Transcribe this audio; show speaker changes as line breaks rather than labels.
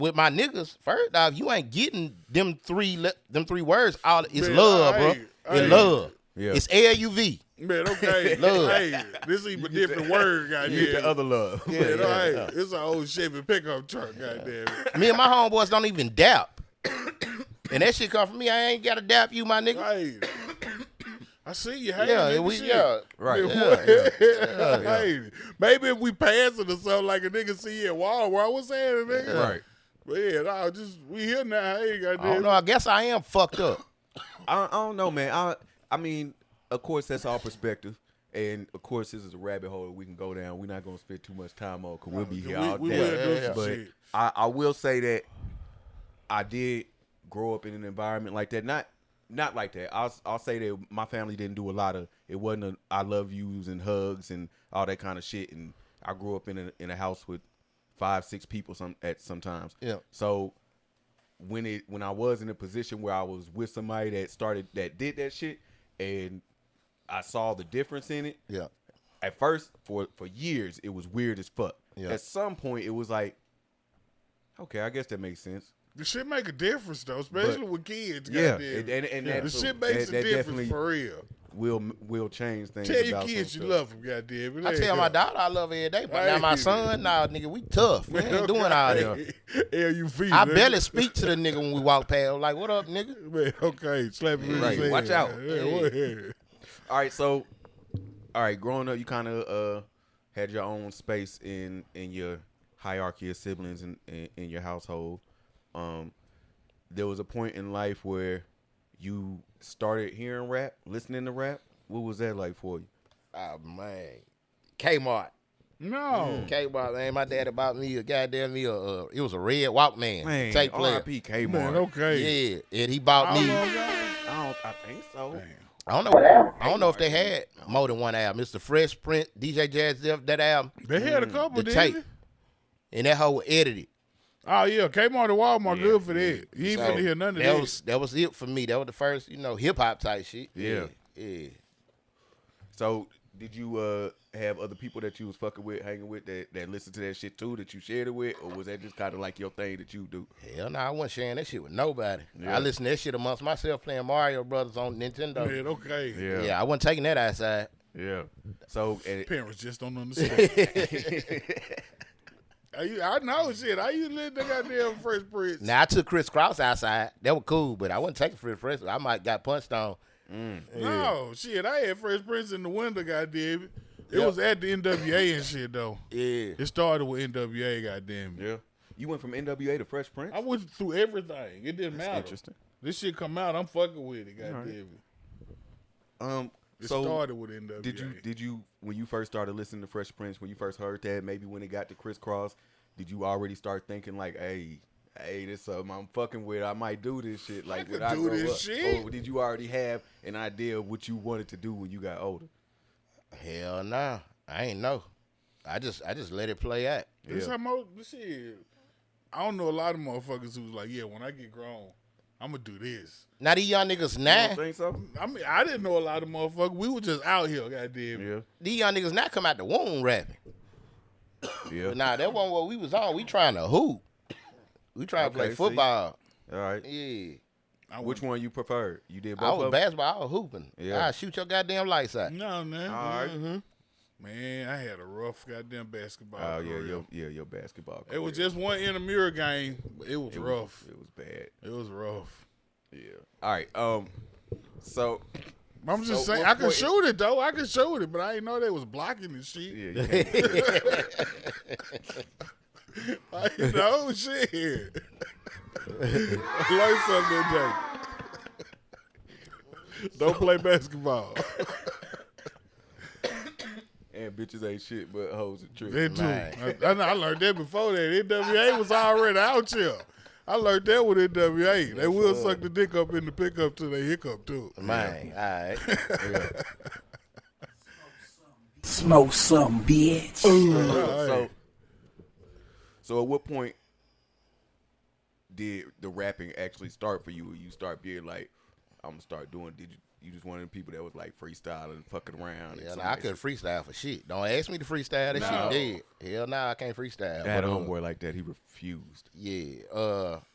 with my niggas, first off, you ain't getting them three le- them three words. All it's love,
I
bro.
ain't- I
It's
ain't-
love.
Yeah.
It's L U V.
Man, okay.
Love.
Hey, this even a different word, goddamn.
You get the other love.
Man, all right. It's an old Chevy pickup truck, goddamn. it.
Me and my homeboys don't even dap. and that shit come from me. I ain't gotta dap you, my nigga.
Hey, I see you. Hey,
yeah,
nigga,
we
shit.
yeah.
Right.
Yeah,
Hey, maybe if we pass it or something like a nigga see you at Walmart, what's happening, nigga?
Right.
Man, I just we here now. Hey,
I don't
goddamn.
know. I guess I am fucked up.
I, I don't know, man. I I mean, of course, that's all perspective, and of course, this is a rabbit hole we can go down. We're not gonna spend too much time on because we'll be here
we,
all
we
day.
will do
Yeah,
some
but
shit.
I, I will say that I did grow up in an environment like that. Not not like that. I'll I'll say that my family didn't do a lot of. It wasn't a I love yous and hugs and all that kind of shit. And I grew up in a, in a house with five six people some at sometimes.
Yeah.
So when it when I was in a position where I was with somebody that started that did that shit and I saw the difference in it
Yeah.
at first for for years it was weird as fuck.
Yeah.
At some point it was like, okay, I guess that makes sense.
The shit make a difference though, especially
But-
with kids.
Yeah,
goddamn.
and- and- and
the
that-
shit makes
that- that
a difference
definitely-
for real.
Will will change things.
Tell your
about some
kids you
stuff.
love them, goddamn. it.
I
Hey,
tell my
yeah.
daughter I love her every day, but now
Hey.
my son, nah, nigga, we tough. We ain't doing all that.
L U V.
I
nigga.
barely speak to the nigga when we walk past. Like, what up, nigga?
Man, okay, slap him in
Right,
his
watch
head.
out.
Yeah, what- yeah.
All right, so all right, growing up you kind of uh had your own space in in your hierarchy of siblings in, in in your household. Um there was a point in life where you started hearing rap, listening to rap. What was that like for you?
Oh man, Kmart.
No.
Kmart, man. My daddy bought me a goddamn me a. Uh, it was a red Walkman
Man,
tape player.
R.I.P. Kmart.
Man, okay.
Yeah, and he bought me.
I don't. I think so.
I don't know. I don't know if they had more than one album. It's the Fresh Print, DJ Jazz Def, that album,
They had a couple,
Mm, the
didn't
tape,
they?
and that whole edited.
Oh, yeah. Kmart and Walmart, good for that. You ain't
So,
finna hear none of
that
that.
was that was it for me. That was the first, you know, hip hop type shit.
Yeah.
yeah. yeah.
So did you uh have other people that you was fucking with, hanging with that that listened to that shit too, that you shared it with, or was that just kind of like your thing that you do?
Hell no, I wasn't sharing that shit with nobody.
Yeah.
I listened to that shit amongst myself playing Mario Brothers on Nintendo.
Man, okay.
yeah. I wasn't taking that outside.
yeah. So and,
Parents just don't understand. Are you- I know shit. I used to live the goddamn Fresh Prince.
Now I took Chris Cross outside. That was cool, but I wasn't taking Chris Cross. I might got punched on.
No, shit. I had Fresh Prince in the window, goddamn it. It
Yeah.
was at the NWA and shit, though.
Yeah.
It started with NWA, goddamn it.
yeah, you went from NWA to Fresh Prince.
I went through everything. It didn't matter.
interesting.
This shit come out, I'm fucking with it, goddamn it.
Um.
It
so
started with NWA.
did you did you when you first started listening to Fresh Prince when you first heard that maybe when it got to crisscross did you already start thinking like hey hey this something I'm fucking with I might do this shit like
could
when I
do
grow
this
up
shit.
or did you already have an idea of what you wanted to do when you got older
Hell nah. I ain't know. I just I just let it play out.
This
Yeah.
how most shit. I don't know a lot of motherfuckers who's like, yeah, when I get grown, I'm gonna do this.
Now these young niggas
You
now,
don't think so
I mean, I didn't know a lot of motherfuckers. We were just out here, goddamn.
yeah
these young niggas now come out the womb rapping.
yeah
But nah, that wasn't what we was on. We trying to hoop. We trying to
Okay,
play
see.
football.
all right
Yeah.
I
Which
went-
one you preferred? You did both
I
of
was
'em?
basketball, I was hooping.
Yeah.
Yeah. I shoot your goddamn lights out.
No, man.
All right.
Mhm. Man, I had a rough goddamn basketball.
Oh yeah,
career.
your, yeah, your basketball.
It was
career.
just one intramural game. But it was
It was-
rough.
It was bad.
It was rough.
Yeah. All right. Um. So
I'm just
So
saying,
what
I could
point-
shoot it though. I could shoot it, but I didn't know they was blocking and shit.
yeah, you can't-
I didn't know shit. Learn something today. Don't play basketball.
and bitches ain't shit, but hoes and tricks.
That too. I,
Man.
I, know- I learned that before that. NWA was already out here. I learned that with NWA. They will suck the dick up in the pickup till they hiccup too.
Man, all right.
Smoke some, bitch.
So, so at what point did the rapping actually start for you? Or you start being like, I'm gonna start doing? Did you you just one of the people that was like freestyling, fucking around. and
Yeah, nah, I
somebody
couldn't freestyle for shit. Don't ask me to freestyle. That
No.
shit dead. Hell nah, I can't freestyle.
Had
But,
a
uh,
homeboy like that. He refused.
yeah. Uh,